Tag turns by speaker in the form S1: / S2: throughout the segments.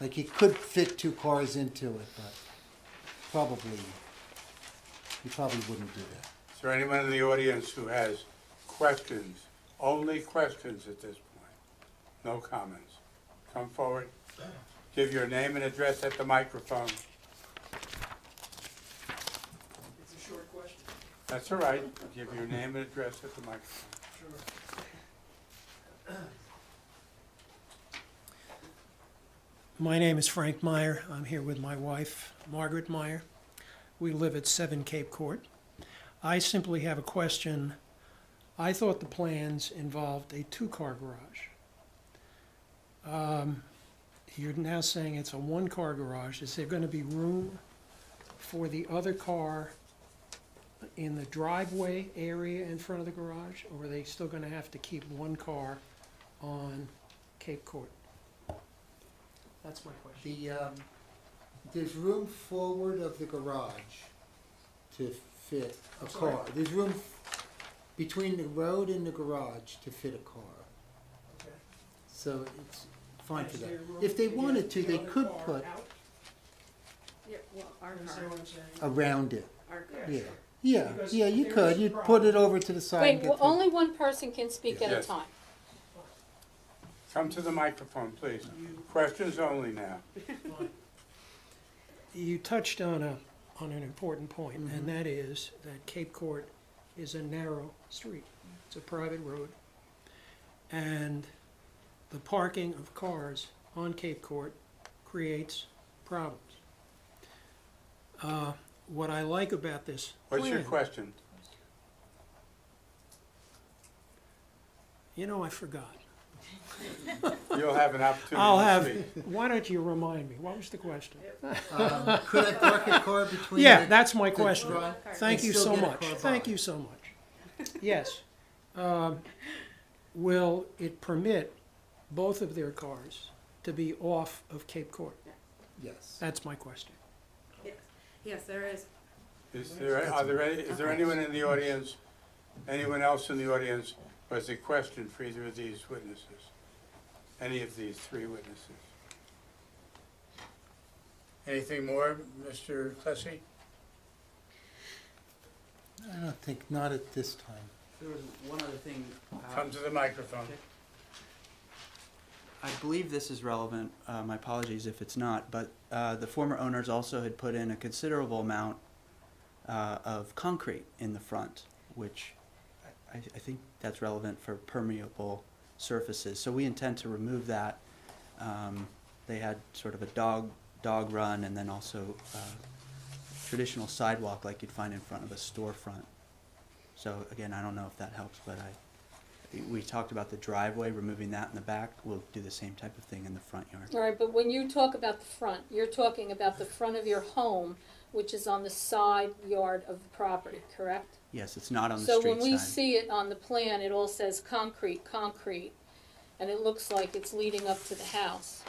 S1: Like he could fit two cars into it, but probably, he probably wouldn't do that.
S2: Is there anyone in the audience who has questions, only questions at this point? No comments. Come forward, give your name and address at the microphone.
S3: It's a short question.
S2: That's all right, give your name and address at the microphone.
S3: My name is Frank Meyer. I'm here with my wife, Margaret Meyer. We live at 7 Cape Court. I simply have a question. I thought the plans involved a two-car garage. Um, You're now saying it's a one-car garage. Is there going to be room for the other car in the driveway area in front of the garage? Or are they still going to have to keep one car on Cape Court? That's my question.
S1: The, um, there's room forward of the garage to fit a
S3: I'm sorry?
S1: car. There's room f- between the road and the garage to fit a car.
S3: Okay.
S1: So it's fine for
S3: Is there
S1: that.
S3: room
S1: If they
S3: get
S1: wanted to,
S3: the
S1: they
S3: other
S1: could
S3: car
S1: put
S3: out?
S4: Yeah, well, our
S3: You
S4: car,
S3: understand what I'm saying?
S1: around it.
S4: our car.
S1: Yeah, yeah,
S3: Because
S1: yeah, you
S3: there
S1: could.
S3: is a
S1: You'd put
S3: problem.
S1: it over to the side. and
S5: Wait,
S1: get
S5: well,
S1: the-
S5: only one person can speak at a
S2: Yes.
S5: time.
S2: Come to the microphone, please. Questions only now.
S3: You touched on a, on an important point, and that is that Cape Court is a narrow street.
S4: Mm.
S3: It's a private road. And the parking of cars on Cape Court creates problems. Uh, What I like about this
S2: What's your
S3: plan-
S2: question?
S3: You know, I forgot.
S2: You'll have an
S3: I'll have,
S2: opportunity to speak.
S3: why don't you remind me? What was the question?
S1: Um, Could I park a car between?
S3: Yeah,
S1: the-
S3: that's my
S1: the
S3: question.
S1: dri-
S3: Thank
S1: and
S3: you
S1: still
S3: so
S1: get a
S3: much.
S1: car
S3: Thank
S1: by?
S3: you so much. Yes. Um, Will it permit both of their cars to be off of Cape Court?
S1: Yes.
S3: That's my question.
S4: Yes, yes, there is.
S2: Is there, are there, any- is there anyone in the audience, anyone else in the audience who has a question for either of these witnesses? Any of these three witnesses? Anything more, Mr. Plessy?
S1: I don't think, not at this time.
S6: There was one other thing. uh,
S2: Come to the microphone.
S6: I believe this is relevant. Uh, my apologies if it's not, but uh, the former owners also had put in a considerable amount uh, of concrete in the front, which I, I think that's relevant for permeable surfaces. So we intend to remove that. Um, they had sort of a dog dog run, and then also uh, traditional sidewalk like you'd find in front of a storefront. So again, I don't know if that helps, but I we talked about the driveway, removing that in the back. We'll do the same type of thing in the front yard.
S5: All right, but when you talk about the front, you're talking about the front of your home, which is on the side yard of the property, correct?
S6: Yes, it's not on the
S5: So
S6: street
S5: when we
S6: side.
S5: see it on the plan, it all says concrete, concrete, and it looks like it's leading up to the house.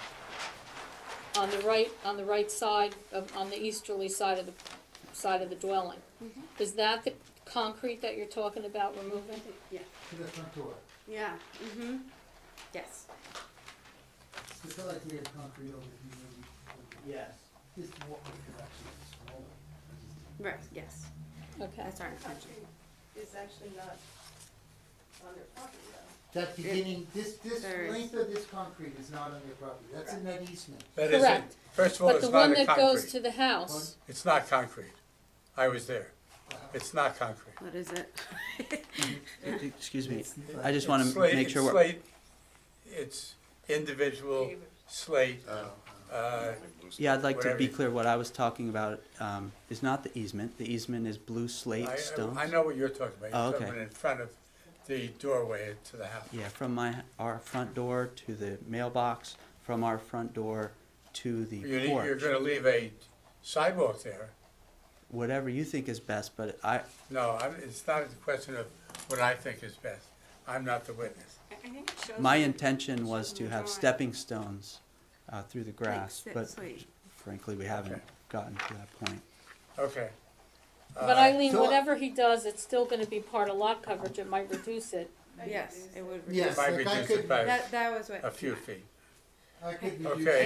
S5: On the right, on the right side, of- on the easterly side of the, side of the dwelling.
S4: Mm-hmm.
S5: Is that the concrete that you're talking about removing?
S4: Yeah,
S1: To the front door.
S4: yeah, mm-hmm, yes.
S1: It's not like we have concrete over here.
S7: Yes.
S1: This walkway could actually be smaller.
S4: Right, yes,
S5: Okay.
S4: that's our intention.
S7: It's actually not on their property though.
S1: That beginning, this, this
S4: There is-
S1: length of this concrete is not on your property, that's in that easement.
S2: That isn't-
S5: Correct.
S2: First of all,
S5: But
S2: it's
S5: the
S2: not
S5: one
S2: a
S5: that goes to
S2: concrete.
S5: the house,
S2: It's not concrete. I was there. It's not concrete.
S4: What is it?
S6: E- Excuse me.
S1: It's-
S6: I just want
S2: It's
S6: to
S2: slate-
S6: make sure
S2: It's
S6: we're.
S2: slate, it's individual slate,
S5: Oh,
S2: uh,
S6: Yeah, I'd like to
S2: whatever
S6: be
S2: you-
S6: clear. What I was talking about um, is not the easement. The easement is blue slate
S2: I- I-
S6: stone.
S2: I know what you're talking about.
S6: Oh,
S2: You're
S6: okay.
S2: talking in front of the doorway to the house.
S6: Yeah, from my our front door to the mailbox, from our front door to the
S2: You need- You're
S6: porch.
S2: gonna leave a sidewalk there.
S6: Whatever you think is best, but I
S2: No, I'm- it's not a question of what I think is best. I'm not the witness.
S4: I think it shows.
S6: my
S4: on-
S6: intention was to have
S4: Drawing.
S6: stepping stones uh, through the grass,
S4: sit-
S6: but
S4: slate.
S6: frankly, we haven't
S2: Okay.
S6: gotten to that point.
S2: Okay.
S5: but
S2: Uh,
S5: Eileen,
S1: so-
S5: whatever he does, it's still gonna be part of lot coverage, it might reduce it.
S4: Yes, it would.
S1: Yes,
S2: Might
S1: like I
S2: reduce
S1: could,
S2: it by
S4: That, that was what.
S2: a few feet.
S1: I could reduce.
S2: Okay.